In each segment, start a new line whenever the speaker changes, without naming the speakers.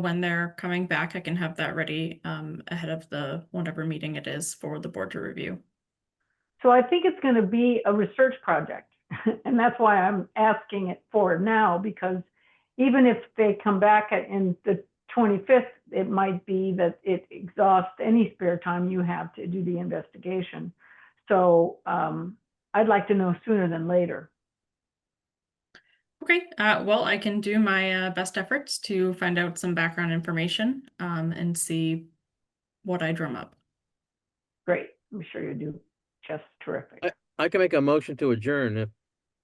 when they're coming back, I can have that ready um ahead of the whatever meeting it is for the board to review.
So I think it's going to be a research project. And that's why I'm asking it for now, because even if they come back at- in the 25th, it might be that it exhausts any spare time you have to do the investigation. So um, I'd like to know sooner than later.
Okay, uh, well, I can do my uh, best efforts to find out some background information um and see what I drum up.
Great, I'm sure you do. Just terrific.
Uh,
I can make a motion to adjourn if,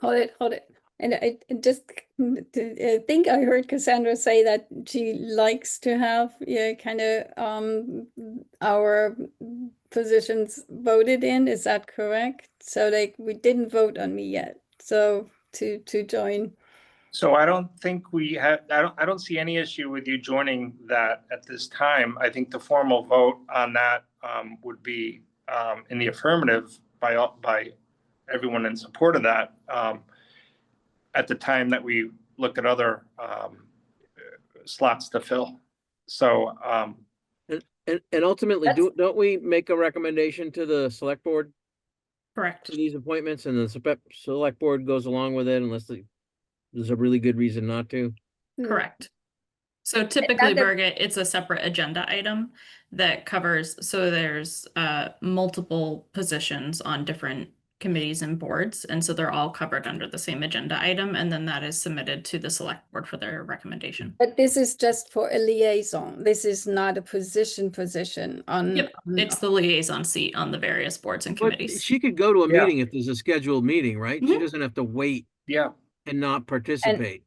Hold it, hold it. And I I just mm, t- uh, think I heard Cassandra say that she likes to have, yeah, kind of, um, our mm, positions voted in, is that correct? So like, we didn't vote on me yet, so to, to join.
So I don't think we have, I don't, I don't see any issue with you joining that at this time. I think the formal vote on that um, would be um, in the affirmative by, all- by everyone in support of that. um, At the time that we look at other um, slots to fill. So um,
and, and ultimately, do, don't we make a recommendation to the select board
Correct.
to these appointments and the spe- select board goes along with it unless the- there's a really good reason not to?
Mm.
Correct. So typically,
that-
Birgit, it's a separate agenda item that covers, so there's uh multiple positions on different committees and boards, and so they're all covered under the same agenda item, and then that is submitted to the select board for their recommendation.
But this is just for a liaison, this is not a position, position on.
Yep,
on-
It's the liaison seat on the various boards and
But
committees.
she could go to a
Yeah.
meeting if there's a scheduled meeting, right? She
Mhm.
doesn't have to wait
yeah,
and not participate.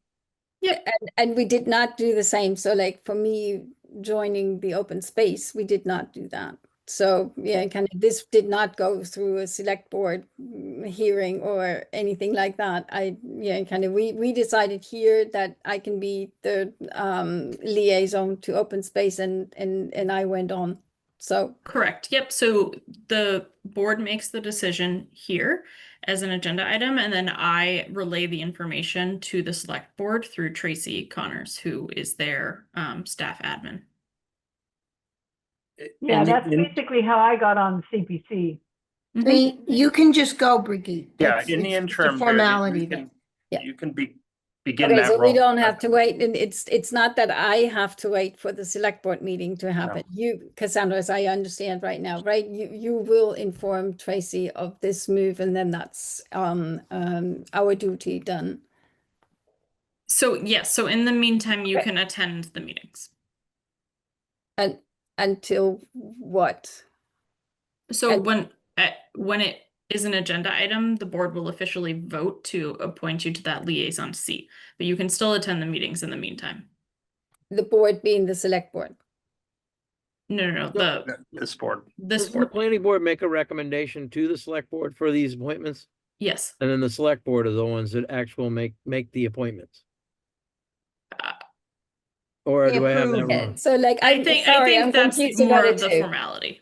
And, and we did not do the same, so like for me, joining the open space, we did not do that. So, yeah, kind of, this did not go through a select board mm, hearing or anything like that. I, yeah, kind of, we, we decided here that I can be the, um, liaison to open space and, and, and I went on. So,
Correct, yep, so the board makes the decision here as an agenda item, and then I relay the information to the select board through Tracy Connors, who is their um staff admin.
Yeah,
And the-
that's
and-
basically how I got on CPC.
I
Mhm.
mean, you can just go, Brigitte.
yeah,
It's-
in the
it's- it's a
interim. Mary, you
Formality
can-
then.
Yeah.
You can be, begin
okay,
that
so
role.
we don't have to wait, and it's, it's not that I have to wait for the select board meeting to happen. You, Cassandra, as I understand right now, right, you, you will inform Tracy of this move, and then that's, um, um, our duty done.
So yes, so in the meantime, you
Okay.
can attend the meetings.
And until what?
So
And-
when at, when it is an agenda item, the board will officially vote to appoint you to that liaison seat, but you can still attend the meetings in the meantime.
The board being the select board.
No, no, no, the
This board.
this
Doesn't the
board,
planning board make a recommendation to the select board for these appointments?
yes.
And then the select board are the ones that actual make, make the appointments?
Uh,
Or
They
do I have that
approve
Okay,
wrong?
So like,
I
I'm
think I
sorry, I'm
think that's
confused
more
about it
of the
too.
formality.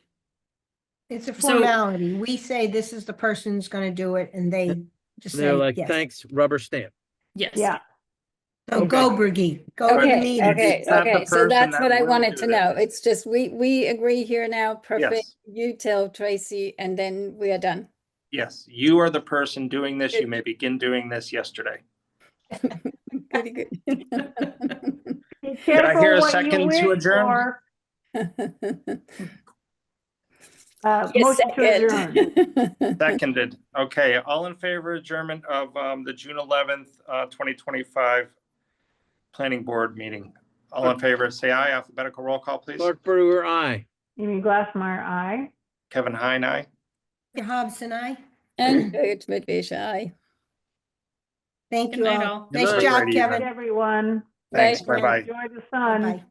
It's a
So-
formality. We say this is the person who's gonna do it and they just
They're
say,
like,
yes.
thanks, rubber stamp.
Yes.
Yeah,
So go, Brigitte, go to the
Right.
Okay,
meeting.
okay,
It's not the
okay, so
person
that's
that
what I
will
wanted
do
to
this.
know, it's just, we, we agree here now, perfect,
Yes.
you tell Tracy, and then we are done.
Yes, you are the person doing this. You
It-
may begin doing this yesterday.
Pretty good.
Be
Did I hear
careful
a
what you
second to
wish
adjourn?
for. Uh,
Yes,
Motion to adjourn.
second.
Seconded. Okay, all in favor adjournment of um, the June eleventh, uh, twenty twenty-five planning board meeting. All in favor, say aye. Alphabetical roll call, please.
Clark Brewer, aye.
Amy Glassmeyer, aye.
Kevin Heine, aye.
Hobbs and I,
And Birgit Mitwischer, aye.
thank
Good
you
night,
all.
all.
Nice
Good
job,
night.
Kevin.
Everyone.
Thanks,
Bye.
bye-bye.
Enjoy the sun.
Bye.